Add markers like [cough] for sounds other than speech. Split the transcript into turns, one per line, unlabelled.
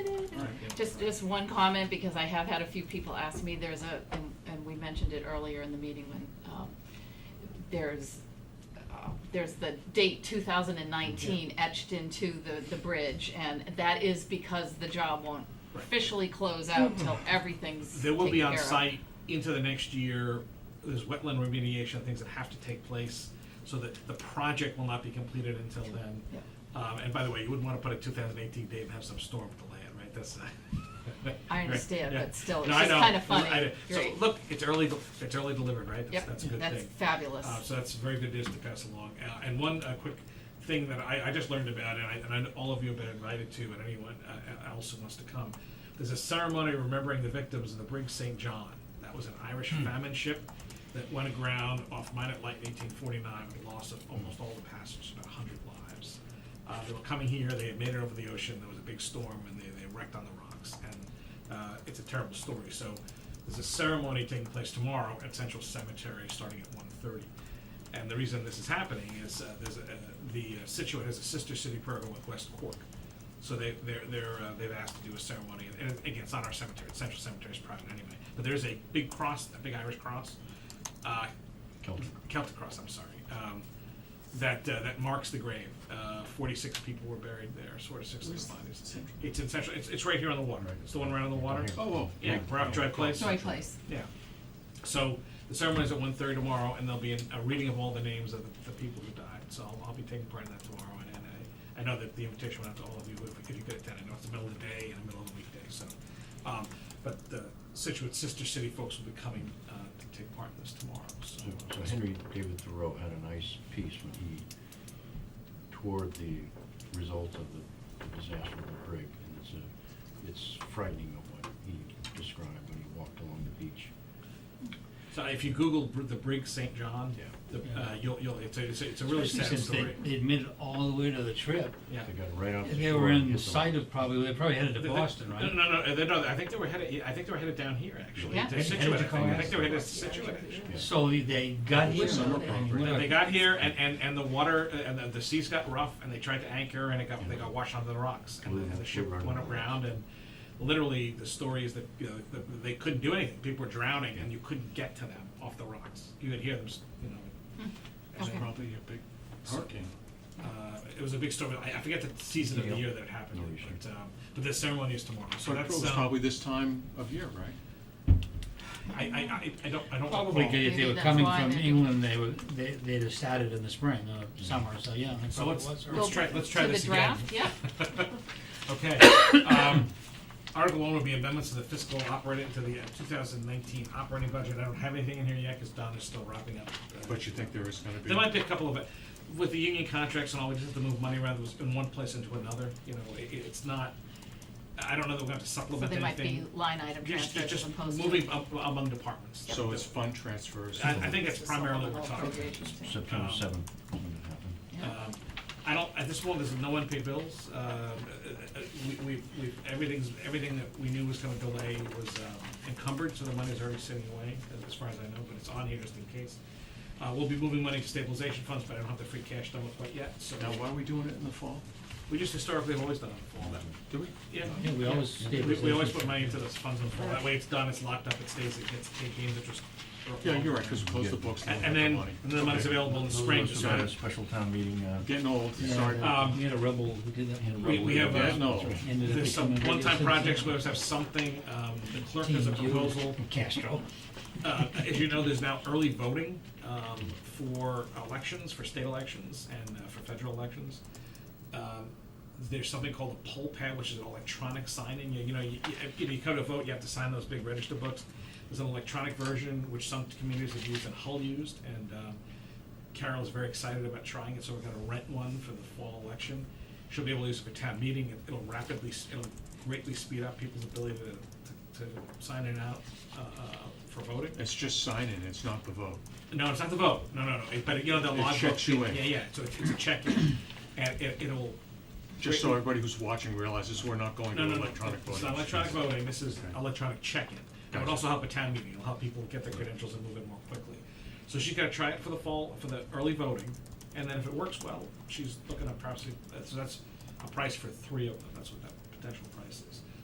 Just, just one comment, because I have had a few people ask me, there's a, and, and we mentioned it earlier in the meeting when, um, there's, uh, there's the date two thousand and nineteen etched into the, the bridge, and that is because the job won't
Right.
officially close out
[laughs]
till everything's
They will be
taken
on
care of.
site into the next year. There's wetland remediation, things that have to take place, so that the project will not be completed until then.
Yep.
Um, and by the way, you wouldn't wanna put a two thousand eighteen date and have some storm delay it, right? That's. [laughs]
I understand, but still, it's
No, I
just
know.
kinda funny.
I- So,
Great.
look, it's early, del- it's early delivered, right? That's-
Yep,
That's a good
that's
thing.
fabulous.
Uh, so that's very good news to pass along. Uh, and one uh, quick thing that I, I just learned about, and I, and I know all of you have been invited to, and anyone uh, else who wants to come. There's a ceremony remembering the victims of the brig St. John. That was an Irish famine ship that went aground off Minot Light in 1849 with the loss of almost all the passengers, about 100 lives. Uh, they were coming here, they had made it over the ocean, there was a big storm, and they, they wrecked on the rocks. And uh, it's a terrible story. So there's a ceremony taking place tomorrow at Central Cemetery starting at 1.30. And the reason this is happening is uh, there's a, the uh, Situate has a sister city program with West Cork. So they, they're, they're, uh, they've asked to do a ceremony, and and again, it's not our cemetery, it's Central Cemetery's private anyway. But there's a big cross, a big Irish cross, uh,
Celtic.
Celtic cross, I'm sorry, um, that, uh, that marks the grave. Uh, forty-six people were buried there, sort of six of the bodies. It's in Central, it's, it's right here on the water, it's the one right on the water.
Right. Oh, oh.
Yeah, Brock Drive Place.
Joy Place.
Yeah. So the ceremony is at 1.30 tomorrow, and there'll be an, a reading of all the names of the, the people who died. So I'll, I'll be taking part in that tomorrow, and, and I, I know that the invitation went out to all of you if, if you could attend. I know it's the middle of the day and the middle of the weekday, so. Um, but the Situate Sister City folks will be coming uh, to take part in this tomorrow. So,
So Henry David Thoreau had a nice piece when he toured the results of the disaster of the brig, and it's a, it's frightening of what he described when he walked along the beach.
so if you Google Br- the Brig St. John,
Yeah.
the, Uh, you'll, you'll, it's, a, it's, a, it's a really
Especially
sad
since
story.
They, they admitted all the way to the trip.
yeah.
They got right out. the
They
shore
were
and
in
hit
sight of probably, they probably headed to
They- they-
Boston, right?
No, no, no, they, no. I think they were headed. I think they were headed down here actually.
Yeah.
to
Headed-
Situate,
headed to
I think. I think
Columbus.
they were headed to Situate. Actually.
Yeah.
So they- they got here.
Yeah.
and went
And
up-
they got here, and, and, and the water uh, and the, the seas got rough, and they tried to anchor, and it got they got washed onto the rocks, and the, and the ship went around, and literally the story is that you know, the, they couldn't do anything. People were drowning, and you couldn't get to them off the rocks. You could hear them, s- you know. It was
okay.
probably a big hurricane. Uh, it was a big storm. I, I forget the season of the year that it happened,
No,
in,
you should.
but, um, but the ceremony is tomorrow. So
But it
that's
was
um,
probably this time of year, right?
I, I, I, I don't I don't recall.
Probably 'cause if
Maybe
they were
that's
coming
why
from
they're-
England, they were, they, they'd have started in the spring or summer, so yeah. that's
So
probably
let's,
what's-
let's try, let's try
To the
this again.
draft,
[laughs]
yeah.
Okay. um, Article one would be amendments to the fiscal operating, to the uh, two thousand nineteen operating budget. I don't have anything in here yet because Don is still wrapping up. uh,
But you think there is gonna be.
There might be a couple of, uh, with the union contracts and all, we just have to move money around in one place into another, you know, it, it's not, I don't know that we're gonna have to
So
supplement
they might
anything.
be line item
Just,
transfers as
just
opposed to.
moving up among departments.
So it's fund transfers.
I, I think it's primarily what we're talking about.
September
Um,
seventh, when it happened.
Yeah.
Um, I don't, at this point, there's no unpaid bills. Um, uh, uh, we- We've, we've, everything's, everything that we knew was gonna delay was um, encumbered, so the money's already sitting away, as- as far as I know, but it's on here just in case. Uh, We'll be moving money to stabilization funds, but I don't have the free cash done with quite yet, so
Now, why are we doing it in the fall?
we just historically have always done it in the fall. that-
Do we?
Yeah.
Yeah, we always
We, we always
stabilization.
put money into those funds in the fall. That way it's done, it's locked up, it stays, it gets, it gains interest.
Yeah, you're right, because we close the books.
And and then, and then the money's available in the spring, so
Those of us who had a
that-
Special town meeting, uh,
Getting old,
Yeah,
sorry.
Um,
We had a rebel who did that.
we, we have,
Yeah,
uh,
no.
Ended up
There's some
becoming a
one-time
citizen.
projects, we always have something, um, the clerk has a
Team Jew
proposal.
Castro.
Uh, as you know, there's now early voting, um, for elections, for state elections and uh, for federal elections. Um, There's something called a poll pad, which is an electronic sign-in, you, you know, you, you, you come to vote, you have to sign those big register books. There's an electronic version, which some communities have used and Hull used, and, um, Carol is very excited about trying it, so we're gonna rent one for the fall election. She'll be able to use it for town meeting, It- it'll rapidly, s- it'll greatly speed up people's ability to, to, to sign in and out, uh, uh, for voting.
It's just signing, it's not the vote.
No, it's not the vote. No, no, no. It- But you know the
It
log
checks you in.
Yeah, yeah. So it's, it's a check, in. and it, it'll.
Just so everybody who's watching realizes we're not going to
No, no, no.
electronic voting.
It's not electronic voting. This is
Okay.
electronic check-in. It would
Gotcha.
also help a town meeting. It'll help people get their credentials and move in more quickly. So she's got to try it for the fall for the early voting, and then if it works well, she's looking at perhaps so that's a price for three of them. That's what that potential price is.